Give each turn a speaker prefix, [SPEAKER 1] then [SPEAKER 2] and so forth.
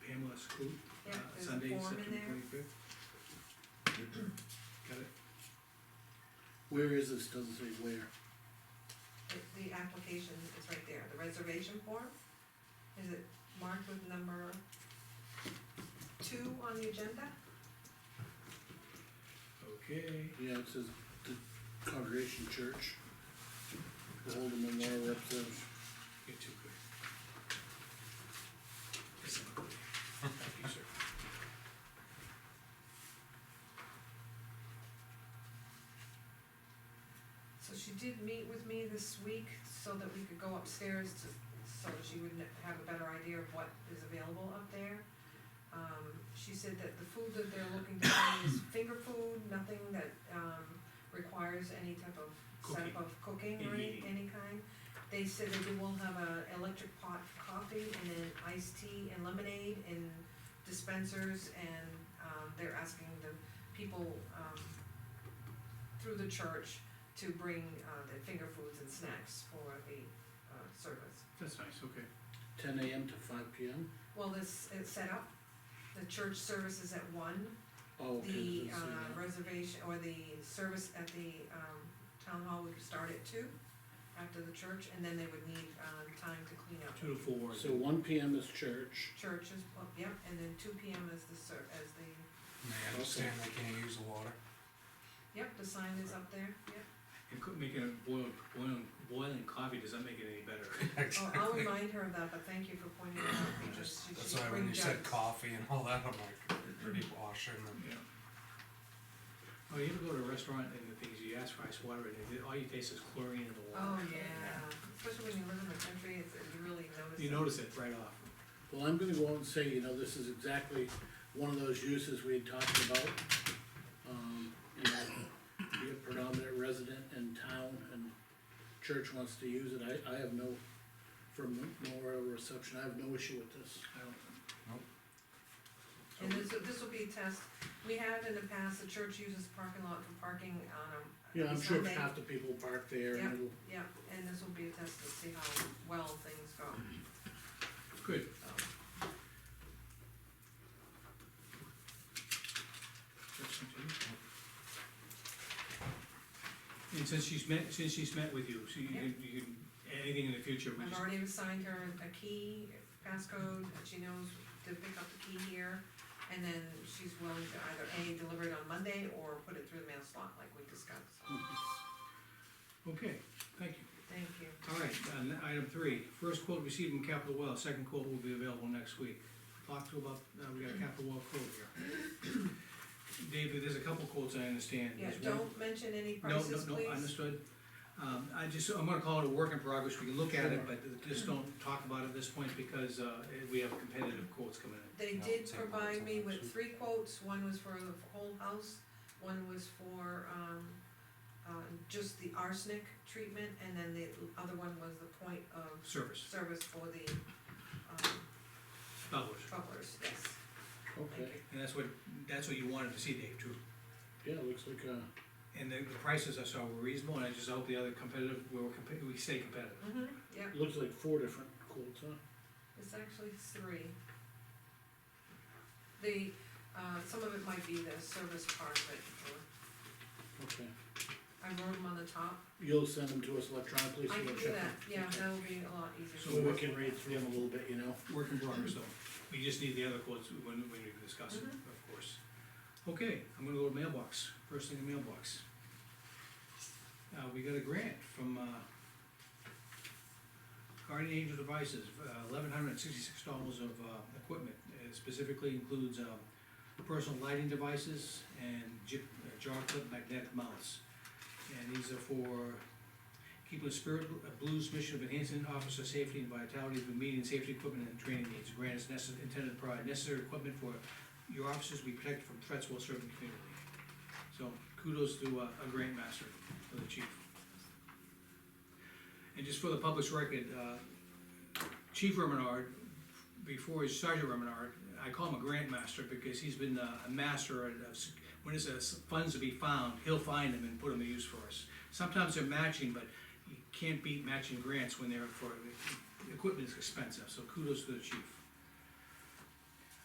[SPEAKER 1] approved, uh,
[SPEAKER 2] Yeah, there's a
[SPEAKER 1] Sunday,
[SPEAKER 2] form in
[SPEAKER 1] September
[SPEAKER 2] there.
[SPEAKER 1] twenty-fifth. Got it?
[SPEAKER 3] Where is this, doesn't say where,
[SPEAKER 2] The- The application is right there, the reservation form. Is it marked with number two on the agenda?
[SPEAKER 1] Okay,
[SPEAKER 3] yeah, it says the Congregation Church. The Holden Memorial Representative,
[SPEAKER 1] you're too quick. Yes, sir. Thank you, sir.
[SPEAKER 2] So she did meet with me this week so that we could go upstairs to, so that she would have a better idea of what is available up there. Um, she said that the food that they're looking to find is finger food, nothing that, um, requires any type of
[SPEAKER 1] Cooking.
[SPEAKER 2] setup of cooking or any,
[SPEAKER 1] Mhm.
[SPEAKER 2] any kind. They said that they will have a electric pot for coffee and then iced tea and lemonade and dispensers and, um, they're asking the people, um, through the church to bring uh, the finger foods and snacks for the uh, service.
[SPEAKER 1] That's nice, okay.
[SPEAKER 3] ten AM to five PM,
[SPEAKER 2] Well, this is set up, the church service is at one,
[SPEAKER 3] oh, okay,
[SPEAKER 2] the
[SPEAKER 3] doesn't say
[SPEAKER 2] uh,
[SPEAKER 3] that.
[SPEAKER 2] reservation, or the service at the um, town hall would start at two after the church, and then they would need um, time to clean up.
[SPEAKER 1] Two to four.
[SPEAKER 3] So one PM is church,
[SPEAKER 2] Church is, oh, yep, and then two P M is the ser, as the,
[SPEAKER 4] And They understand they can't use the water.
[SPEAKER 2] yep, the sign is up there, yep.
[SPEAKER 1] And cook, making a boiled, boiling, boiling coffee, does that make it any better?
[SPEAKER 2] Oh, I'll remind her of that, but thank you for pointing it out, because she
[SPEAKER 4] That's
[SPEAKER 2] should
[SPEAKER 4] why
[SPEAKER 2] bring
[SPEAKER 4] when you
[SPEAKER 2] jugs.
[SPEAKER 4] said coffee and all that, I'm like, pretty washing and.
[SPEAKER 1] Yeah. Oh, you ever go to a restaurant and the things you ask for ice water and it- all you taste is chlorine in the
[SPEAKER 2] Oh,
[SPEAKER 1] water?
[SPEAKER 2] yeah, especially when you live in the country, it's, you really notice.
[SPEAKER 1] You
[SPEAKER 2] it.
[SPEAKER 1] notice it right off.
[SPEAKER 3] well, I'm gonna go out and say, you know, this is exactly one of those uses we had talked about. Um, you know, be a predominant resident in town and church wants to use it, I, I have no, from memorial reception, I have no issue with this.
[SPEAKER 1] I don't,
[SPEAKER 2] And this, this will be a test, we have in the past, the church uses parking lot for parking on a.
[SPEAKER 3] Yeah, I'm sure
[SPEAKER 2] Sunday.
[SPEAKER 3] half the people park there and it'll,
[SPEAKER 2] Yeah, and this will be a test to see how well things go,
[SPEAKER 1] Mm-hmm. good.
[SPEAKER 2] so.
[SPEAKER 1] Question two. And since she's met, since she's met with you, so you can, you can, anything in the future, we
[SPEAKER 2] I've
[SPEAKER 1] just,
[SPEAKER 2] already assigned her a key, passcode, and she knows to pick up the key here. And then she's willing to either A, deliver it on Monday, or put it through the mail slot like we discussed.
[SPEAKER 1] Hmm. okay, thank you.
[SPEAKER 2] Thank you.
[SPEAKER 1] All right, and item three, first quote received from Capital Well, second quote will be available next week. Talk to about, uh, we got a Capital Well quote here. David, there's a couple quotes I understand.
[SPEAKER 2] Yeah,
[SPEAKER 1] There's one-
[SPEAKER 2] don't mention any
[SPEAKER 1] No,
[SPEAKER 2] prices, please.
[SPEAKER 1] no, no, understood. Um, I just, I'm gonna call it a work in progress, we can look at it, but just don't talk about it at this point, because, uh, we have competitive quotes coming in.
[SPEAKER 2] They
[SPEAKER 4] No,
[SPEAKER 2] did
[SPEAKER 4] take
[SPEAKER 2] provide
[SPEAKER 4] quotes
[SPEAKER 2] me
[SPEAKER 4] on that,
[SPEAKER 2] with
[SPEAKER 4] too.
[SPEAKER 2] three quotes, one was for the whole house, one was for, um, uh, just the arsenic treatment, and then the other one was the point of
[SPEAKER 1] Service,
[SPEAKER 2] service for the, um,
[SPEAKER 1] dollars.
[SPEAKER 2] troublers, yes, thank
[SPEAKER 3] okay,
[SPEAKER 2] you.
[SPEAKER 1] And that's what, that's what you wanted to see, Dave, too.
[SPEAKER 3] yeah, it looks like, uh,
[SPEAKER 1] And the, the prices I saw were reasonable, and I just hope the other competitive, we were competitive, we stay competitive.
[SPEAKER 2] hmm yeah,
[SPEAKER 3] it looks like four different quotes, huh?
[SPEAKER 2] it's actually three. The, uh, some of it might be the service part, but, uh,
[SPEAKER 3] Okay,
[SPEAKER 2] I wrote them on the top,
[SPEAKER 3] you'll send them to us electronically, so
[SPEAKER 2] I
[SPEAKER 3] we'll
[SPEAKER 2] can do
[SPEAKER 3] check
[SPEAKER 2] that,
[SPEAKER 3] them.
[SPEAKER 2] yeah,
[SPEAKER 3] Okay.
[SPEAKER 2] that'll be a lot easier.
[SPEAKER 1] So
[SPEAKER 3] So we can read through them a little bit, you know?
[SPEAKER 1] Work in progress, though. We just need the other quotes when, when we discuss it, of course. Okay, I'm gonna go to mailbox, first thing in mailbox. Uh, we got a grant from, uh, Guardian Angel Devices, uh, eleven hundred and sixty-six dollars of, uh, equipment. It specifically includes, um, personal lighting devices and jip, uh, jar clip magnetic mounts. And these are for keeping the spirit of Blues mission of enhancing officer safety and vitality through meeting safety equipment and training needs. Grant is necessary, intended to provide necessary equipment for your officers to be protected from threats while serving the community. So kudos to uh, a grant master, to the chief. And just for the public's record, uh, Chief Remenard, before he's Sergeant Remenard, I call him a grant master because he's been uh, a master of, of- when there's uh, funds to be found, he'll find them and put them to use for us. Sometimes they're matching, but you can't beat matching grants when they're for, equipment is expensive, so kudos to the chief.